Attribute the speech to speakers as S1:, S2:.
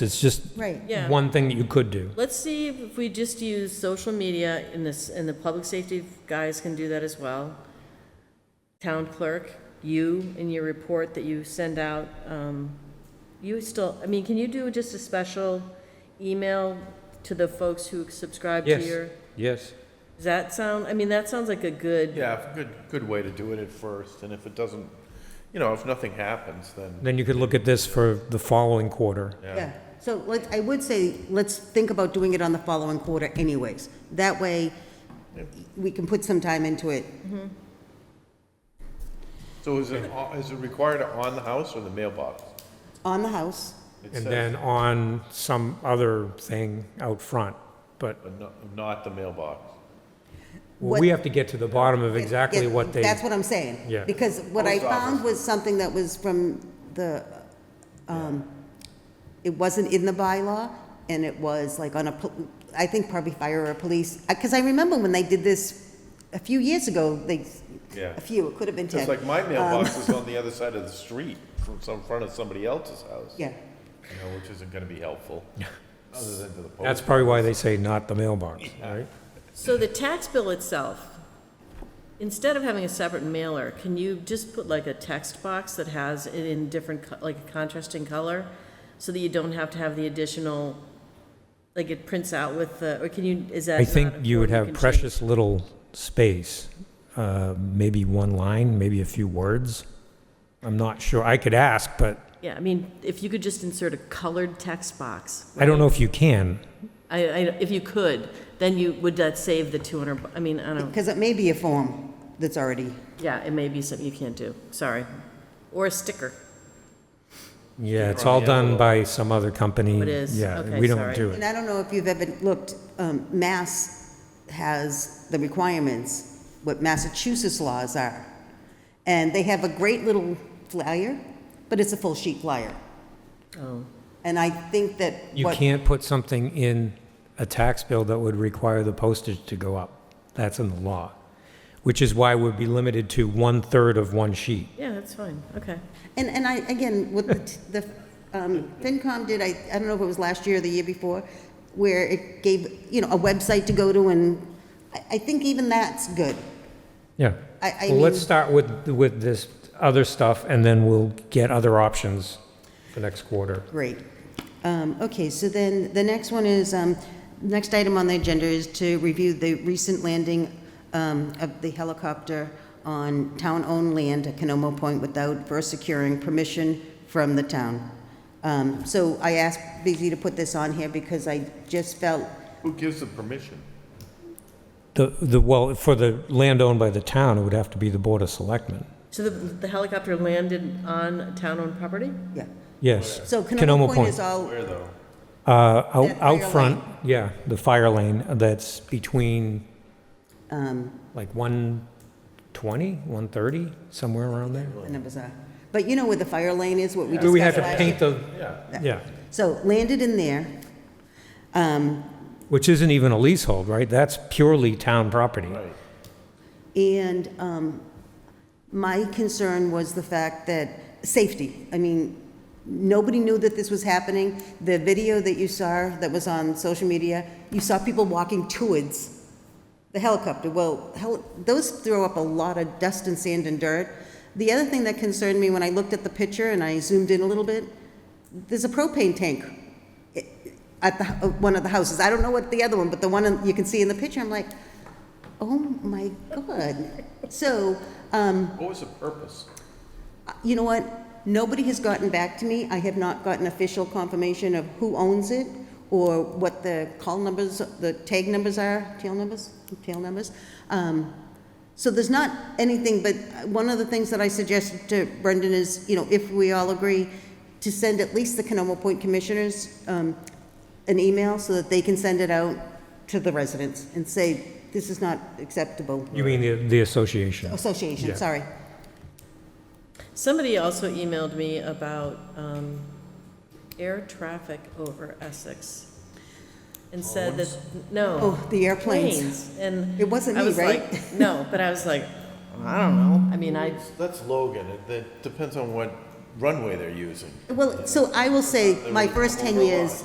S1: It's just
S2: Right.
S3: Yeah.
S1: one thing that you could do.
S3: Let's see if we just use social media in this, and the public safety guys can do that as well. Town clerk, you in your report that you send out, um, you still, I mean, can you do just a special email to the folks who subscribe to your?
S1: Yes, yes.
S3: Does that sound, I mean, that sounds like a good.
S4: Yeah, good, good way to do it at first, and if it doesn't, you know, if nothing happens, then,
S1: Then you could look at this for the following quarter.
S2: Yeah, so like, I would say, let's think about doing it on the following quarter anyways. That way, we can put some time into it.
S4: so is it, uh, is it required on the house or the mailbox?
S2: On the house,
S4: It
S1: And
S4: says,
S1: then on some other thing out front. But
S4: but not- Not the mailbox.
S1: well, we have to get to the bottom of exactly
S2: Yeah,
S1: what they,
S2: That's what I'm saying.
S1: Yeah.
S2: Because what I
S4: Post office.
S2: found was something that was from the, um, it wasn't in the bylaw, and it was like on a, po- I think probably fire or police, because I remember when they did this a few years ago, they,
S4: Yeah.
S2: a few, it could have been ten.
S4: Just like my mailbox is on the other side of the street from some front of somebody else's house.
S2: Yeah,
S4: You know, which isn't gonna be helpful, other than to the post.
S1: that's probably why they say not the mailbox, right?
S3: So the tax bill itself, instead of having a separate mailer, can you just put like a text box that has it in different, co- like a contrasting color? So that you don't have to have the additional, like it prints out with the, or can you, is that?
S1: I
S3: not
S1: think you would
S3: important?
S1: have
S3: can change-
S1: precious little space, uh, maybe one line, maybe a few words. I'm not sure. I could ask, but
S3: Yeah, I mean, if you could just insert a colored text box,
S1: I don't know if you can.
S3: I, I, if you could, then you, would that save the two hundred, I mean, I don't,
S2: because it may be a form that's already.
S3: yeah, it may be something you can't do, sorry. Or a sticker.
S1: Yeah, it's
S4: on
S1: all
S4: the
S1: done
S4: envelope.
S1: by some other company.
S3: Oh, It is.
S1: Yeah,
S3: Okay,
S1: we don't
S3: sorry.
S1: do it.
S2: And I don't know if you've ever looked, um, Mass has the requirements, what Massachusetts laws are. And they have a great little flyer, but it's a full sheet flyer.
S3: Oh,
S2: And I think that
S1: You
S2: what,
S1: can't put something in a tax bill that would require the postage to go up. That's in the law, which is why we'd be limited to one-third of one sheet.
S3: yeah, that's fine, okay.
S2: and, and I, again, what the, t- the, um, FinCom did, I, I don't know if it was last year or the year before, where it gave, you know, a website to go to and I, I think even that's good.
S1: Yeah.
S2: I- I
S1: Well, let's
S2: mean-
S1: start with, with this other stuff, and then we'll get other options for next quarter.
S2: Great. Um, Okay, so then, the next one is, um, next item on the agenda is to review the recent landing um, of the helicopter on town-owned land at Canomo Point without first securing permission from the town. Um, So I asked Busy to put this on here because I just felt,
S4: Who gives the permission?
S1: The, the, well, for the land owned by the town, it would have to be the Board of Selectmen.
S3: So the, the helicopter landed on town-owned property?
S2: yeah.
S1: Yes.
S2: So
S1: Canomo
S2: Canomo Point
S1: Point.
S2: is all,
S4: Where though?
S1: Uh, out,
S2: That fire
S1: out front, yeah, the fire lane that's between
S2: um,
S1: like 120, 130, somewhere around there.
S2: the numbers are, but you know where the fire lane is, what we
S1: Do
S2: discussed
S1: we have
S2: last
S1: to
S2: year?
S1: paint the,
S4: Yeah,
S1: yeah,
S2: So landed in there. Um,
S1: which isn't even a leasehold, right? That's purely town property.
S4: right.
S2: And um, my concern was the fact that, safety, I mean, nobody knew that this was happening. The video that you saw that was on social media, you saw people walking towards the helicopter. Well, hel- those throw up a lot of dust and sand and dirt. The other thing that concerned me when I looked at the picture and I zoomed in a little bit, there's a propane tank i- at the, h- one of the houses. I don't know what the other one, but the one in- you can see in the picture, I'm like, Oh my God. So, um,
S4: What was the purpose?
S2: you know what? Nobody has gotten back to me. I have not gotten official confirmation of who owns it or what the call numbers, the tag numbers are, tail numbers, tail numbers. Um, so there's not anything, but one of the things that I suggested to Brendan is, you know, if we all agree, to send at least the Canoma Point Commissioners um, an email so that they can send it out to the residents and say, this is not acceptable.
S1: You mean the, the association? Yeah.
S2: Association, sorry.
S3: Somebody also emailed me about um, air traffic over Essex and said that, no.
S2: Oh, the airplanes.
S3: Planes, and.
S2: It wasn't
S3: I
S2: me,
S3: was like, No, but I was like, I don't know, I mean, I,
S4: That's Logan, it, it depends on what runway they're using.
S2: Well, so I will say, my first 10 years,